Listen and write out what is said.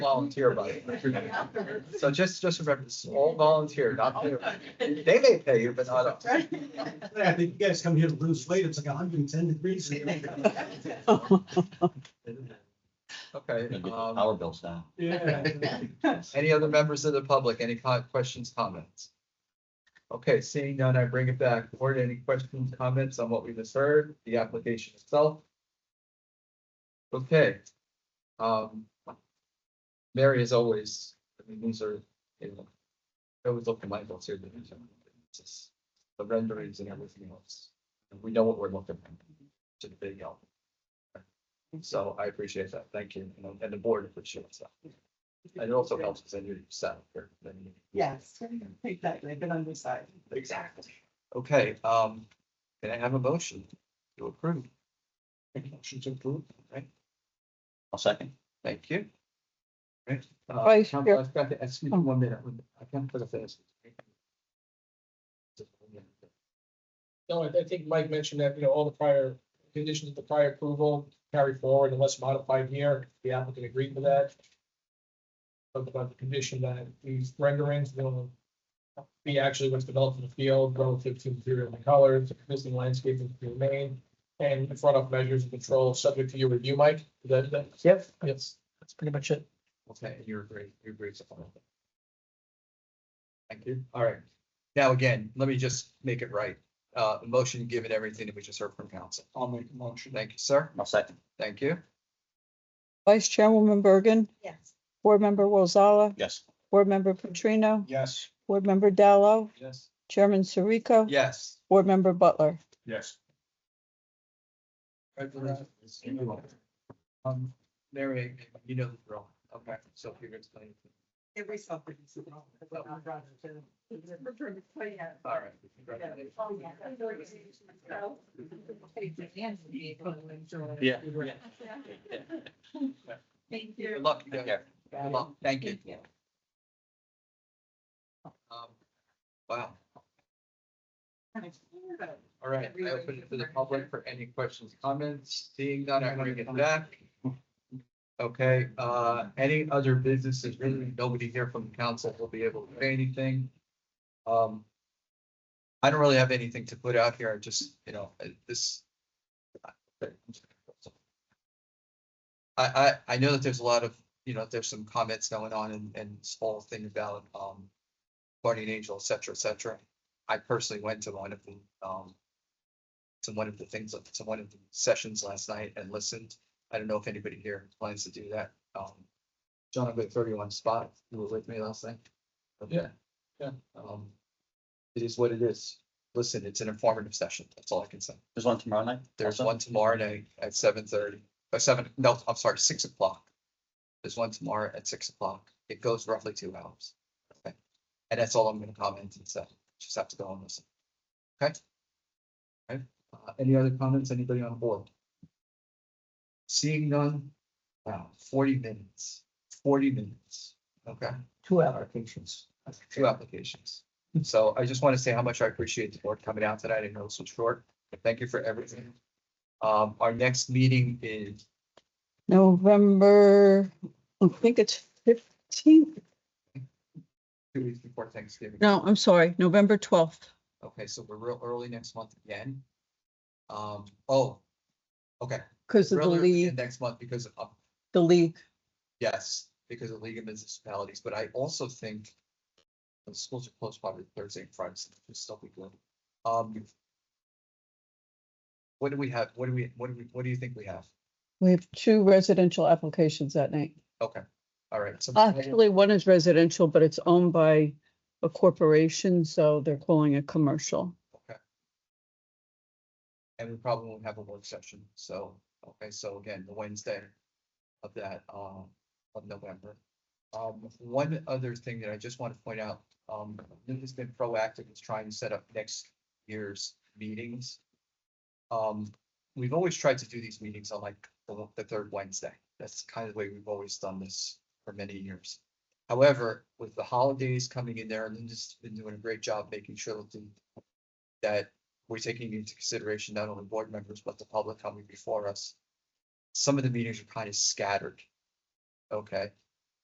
volunteer, buddy. So just, just remember, this is all volunteer, not paid. They may pay you, but not us. I think you guys come here to lose weight. It's like hundred and ten degrees. Okay, um, Our bills down. Yeah. any other members of the public, any co- questions, comments? Okay, seeing none, I bring it back. Board, any questions, comments on what we just heard, the application itself? Okay. Um. Mary is always, I mean, these are, you know, I always look at my books here. they're just- it's just The renderings and everything else. And we know what we're looking for. To the big help. So I appreciate that. Thank you. And- And the board appreciates that. And it also helps us in your setup here. Yes, exactly, been on this side. Exactly. Okay, um, can I have a motion to approve? Motion to approve, right? I'll second. Thank you. Right. Uh, Vice Council, I've got to, excuse me one minute, I can't put a finish. No, I, I think Mike mentioned that, you know, all the prior conditions of the prior approval carry forward unless modified here, the applicant agreed to that. But about the condition that these renderings will be actually what's developed in the field relative to material and colors, existing landscaping to remain. And the front off measures and control subject to your review, Mike, Is that, that, Yes. yes, that's pretty much it. Okay, and you're agree, you agree so far. Thank you, all right. Now, again, let me just make it right. Uh, the motion, given everything that we just heard from council. I'll make the motion. Thank you, sir. I'll second. Thank you. Vice Chairwoman Bergen, Yes. Board Member Wolzala, Yes. Board Member Petrino, Yes. Board Member Dallo, Yes. Chairman Sirico, Yes. Board Member Butler. Yes. Um, Mary, you know the drill. Okay, so if you're explaining. Every suffering. All right. congratulations. Yeah. Thank Good you. luck. you guys. Good luck. Thank you. Um, Wow, all right. I open it to the public for any questions, comments, seeing none, I bring it back. Okay, uh, any other businesses, really, nobody here from the council will be able to say anything. Um. I don't really have anything to put out here, I just, you know, uh, this. I, I, I know that there's a lot of, you know, there's some comments going on and, and small thing about, um. Guardian angel, et cetera, et cetera. I personally went to one of the, um. To one of the things, to one of the sessions last night and listened. I don't know if anybody here plans to do that. Um. John, I've got thirty-one spot. You were with me last night. Yeah, yeah. Um. It is what it is. Listen, it's an informative session. That's all I can say. There's one tomorrow night? There's also? one tomorrow night at seven thirty, or seven, no, I'm sorry, six o'clock. There's one tomorrow at six o'clock. It goes roughly two hours. Okay, And that's all I'm gonna comment and say. Just have to go and listen. Okay? Okay, Uh, any other comments? Anybody on board? Seeing none? Wow, forty minutes, forty minutes. Okay, Two applications. two applications. So I just want to say how much I appreciate the board coming out tonight. I know it's so short. but Thank you for everything. Um, our next meeting is, November, I think it's fifteenth. two weeks before Thanksgiving. No, I'm sorry, November twelfth. Okay, so we're real early next month again. Um, oh, okay. Because of the real early league, Next month because of, the league. yes, because of League of Municipalities, but I also think the schools are closed probably Thursday and Friday, so this stuff we good. Um, what do we have? What do we, what do we, what do you think we have? We have two residential applications that night. Okay, all right. so- Actually, one is residential, but it's owned by a corporation, so they're calling it commercial. And we probably won't have a work session, so, okay, so again, the Wednesday of that, um, of November. Um, one other thing that I just want to point out, um, Lynn has been proactive in trying to set up next year's meetings. Um, we've always tried to do these meetings on like the, the third Wednesday. That's kind of the way we've always done this for many years. However, with the holidays coming in there, Linda's been doing a great job making sure that the- that we're taking into consideration not only board members, but the public coming before us. Some of the meetings are kind of scattered. Okay,